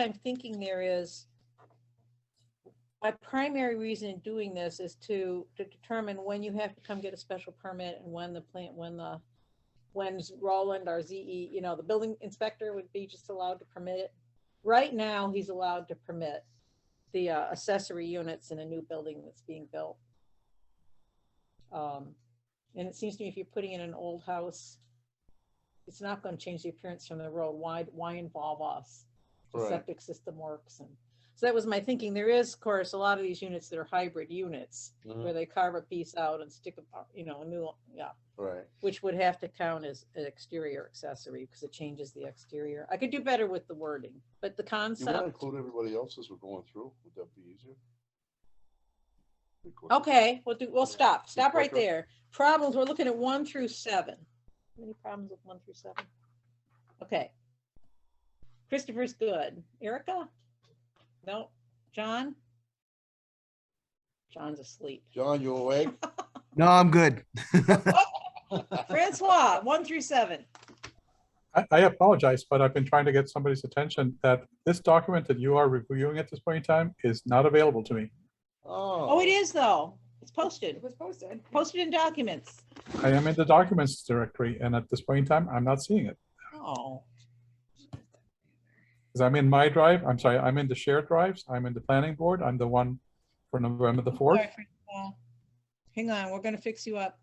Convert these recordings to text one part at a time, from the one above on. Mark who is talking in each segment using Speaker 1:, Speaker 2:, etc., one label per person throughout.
Speaker 1: I'm thinking there is, my primary reason in doing this is to, to determine when you have to come get a special permit and when the plant, when the, when Roland, our ZE, you know, the building inspector would be just allowed to permit it. Right now, he's allowed to permit the uh, accessory units in a new building that's being built. Um, And it seems to me if you're putting in an old house, it's not going to change the appearance from the road. Why, why involve us? the
Speaker 2: Right.
Speaker 1: septic system works and so that was my thinking there is of course a lot of these units that are hybrid units
Speaker 2: Mhm.
Speaker 1: where they carve a piece out and stick a you know a new yeah
Speaker 2: Right.
Speaker 1: which would have to count as an exterior accessory because it changes the exterior i could do better with the wording but the
Speaker 2: You want to
Speaker 1: concept
Speaker 2: include everybody else as we're going through? Would that be easier? Record-
Speaker 1: okay we'll do we'll stop stop right
Speaker 2: Okay.
Speaker 1: there problems we're looking at one through seven any problems with one through seven okay christopher's good erica no john john's asleep
Speaker 2: John, you awake?
Speaker 3: No, I'm good.
Speaker 1: Francois, one through seven.
Speaker 4: I, I apologize, but I've been trying to get somebody's attention that this document that you are reviewing at this point in time is not available to me.
Speaker 1: Oh, it is though. It's posted,
Speaker 5: It was posted.
Speaker 1: posted in documents.
Speaker 4: I am in the documents directory, and at this point in time, I'm not seeing it.
Speaker 1: Oh,
Speaker 4: Because I'm in my drive, I'm sorry, I'm in the shared drives, I'm in the planning board, I'm the one for November the
Speaker 1: all
Speaker 4: fourth.
Speaker 1: right, Francois. hang on, we're gonna fix you up.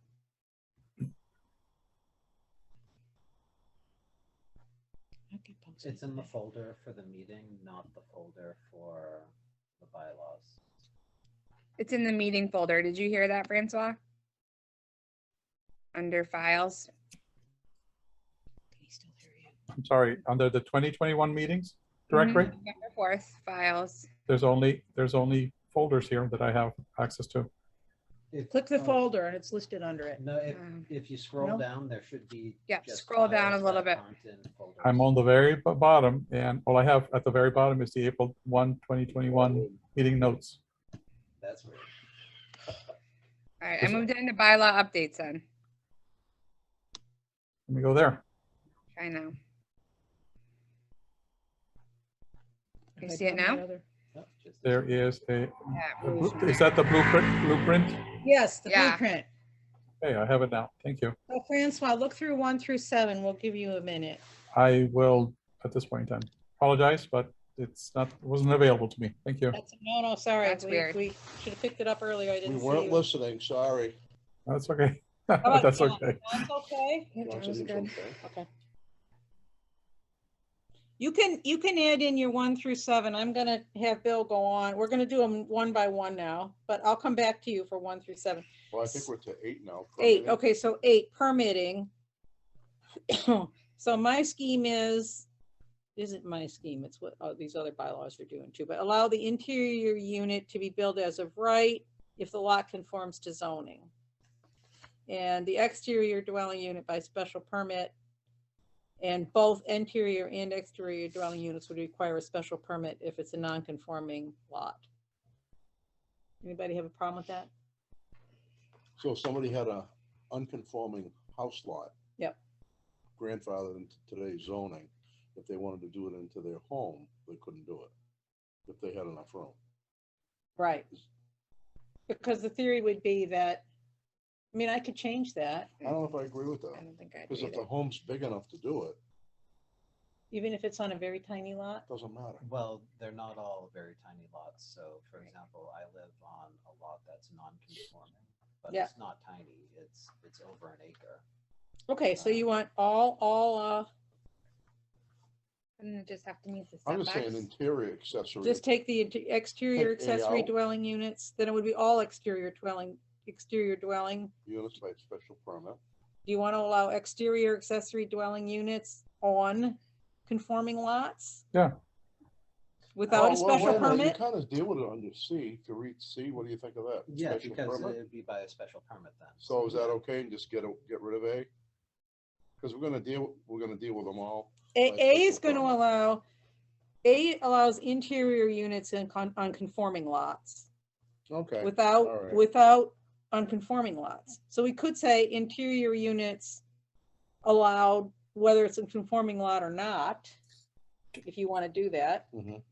Speaker 1: Okay, posted.
Speaker 6: It's in the folder for the meeting, not the folder for the bylaws.
Speaker 5: It's in the meeting folder. Did you hear that, Francois? Under files.
Speaker 1: Can he still hear you?
Speaker 4: I'm sorry, under the twenty twenty-one meetings directory,
Speaker 5: November Fourth, files.
Speaker 4: there's only, there's only folders here that I have access to.
Speaker 6: If-
Speaker 1: Click the
Speaker 6: oh,
Speaker 1: folder and it's listed under it.
Speaker 6: No, if,
Speaker 5: Um,
Speaker 6: if you
Speaker 1: No.
Speaker 6: scroll down, there should be.
Speaker 5: Yeah,
Speaker 6: just
Speaker 5: scroll down
Speaker 6: files
Speaker 5: a little
Speaker 6: that
Speaker 5: bit.
Speaker 6: aren't in folders.
Speaker 4: I'm on the very b- bottom, and all I have at the very bottom is the April 1, 2021 meeting notes.
Speaker 6: That's weird.
Speaker 5: All right, I
Speaker 4: Is it-
Speaker 5: moved into bylaw updates then.
Speaker 4: Let me go there.
Speaker 5: I know. You
Speaker 1: Okay,
Speaker 5: see it
Speaker 1: down
Speaker 5: now?
Speaker 1: the other-
Speaker 6: Nope, just
Speaker 4: There is a,
Speaker 5: Yeah.
Speaker 2: Mm-hmm.
Speaker 4: the blu- is that the blueprint, blueprint?
Speaker 1: Yes, the
Speaker 5: Yeah.
Speaker 1: blueprint.
Speaker 4: Hey, I have it now. Thank you.
Speaker 1: So Francois, look through one through seven. We'll give you a minute.
Speaker 4: I will, at this point in time, apologize, but it's not, wasn't available to me. Thank you.
Speaker 1: That's, no, no, sorry.
Speaker 5: That's
Speaker 1: We-
Speaker 5: weird.
Speaker 1: We should have picked it up earlier. I
Speaker 2: We
Speaker 1: didn't see
Speaker 2: weren't
Speaker 1: you.
Speaker 2: listening, sorry.
Speaker 4: That's okay.
Speaker 1: about
Speaker 4: That's
Speaker 1: John?
Speaker 4: okay.
Speaker 1: That's okay.
Speaker 5: Yeah,
Speaker 2: John
Speaker 5: that
Speaker 2: said
Speaker 5: was
Speaker 2: he was
Speaker 5: good.
Speaker 2: okay.
Speaker 1: Okay. You can, you can add in your one through seven. I'm gonna have Bill go on. We're gonna do them one by one now, but I'll come back to you for one through seven.
Speaker 2: Well, I think we're to eight now.
Speaker 1: Eight,
Speaker 2: permitting.
Speaker 1: okay, so eight, permitting. So my scheme is, isn't my scheme, it's what uh, these other bylaws are doing too, but allow the interior unit to be built as of right if the lot conforms to zoning. And the exterior dwelling unit by special permit. And both interior and exterior dwelling units would require a special permit if it's a non-conforming lot. Anybody have a problem with that?
Speaker 2: So if somebody had a unconforming house lot.
Speaker 1: Yep.
Speaker 2: Grandfathered into today's zoning, if they wanted to do it into their home, they couldn't do it. If they had enough room.
Speaker 1: Right. Because the theory would be that, I mean, I could change that,
Speaker 2: I don't know if I agree with that,
Speaker 5: I don't think I
Speaker 2: because
Speaker 5: did.
Speaker 2: if the home's big enough to do it,
Speaker 1: even if it's on a very tiny lot.
Speaker 2: it doesn't matter.
Speaker 6: Well, they're not all very tiny lots, so for example, I live on a lot that's non-conforming, but
Speaker 1: Yeah.
Speaker 6: it's not tiny, it's, it's over an acre.
Speaker 1: Okay, so you want all, all, uh,
Speaker 5: Wouldn't it just have to meet the
Speaker 2: I'm just saying
Speaker 5: setbacks?
Speaker 2: interior accessory.
Speaker 1: just take the int- exterior
Speaker 2: Take A
Speaker 1: accessory
Speaker 2: out.
Speaker 1: dwelling units, then it would be all exterior dwelling, exterior dwelling.
Speaker 2: Units by special permit.
Speaker 1: Do you want to allow exterior accessory dwelling units on conforming lots?
Speaker 4: Yeah.
Speaker 1: Without
Speaker 2: Oh,
Speaker 1: a
Speaker 2: well, wait
Speaker 1: special
Speaker 2: minute,
Speaker 1: permit?
Speaker 2: You kind of deal with it under C, to read C, what do you think of that?
Speaker 6: Yeah,
Speaker 2: Special
Speaker 6: because
Speaker 2: permit?
Speaker 6: it'd be by a special permit then.
Speaker 2: So is that okay, and just get, a- get rid of A? Because we're gonna deal, we're gonna deal with them all.
Speaker 1: A,
Speaker 2: by
Speaker 1: A is
Speaker 2: special
Speaker 1: going to
Speaker 2: permit.
Speaker 1: allow, A allows interior units in con, on conforming lots.
Speaker 2: Okay, all
Speaker 1: without,
Speaker 2: right.
Speaker 1: without unconforming lots. So we could say interior units allowed, whether it's a conforming lot or not. if you want to do that.
Speaker 2: Mhm.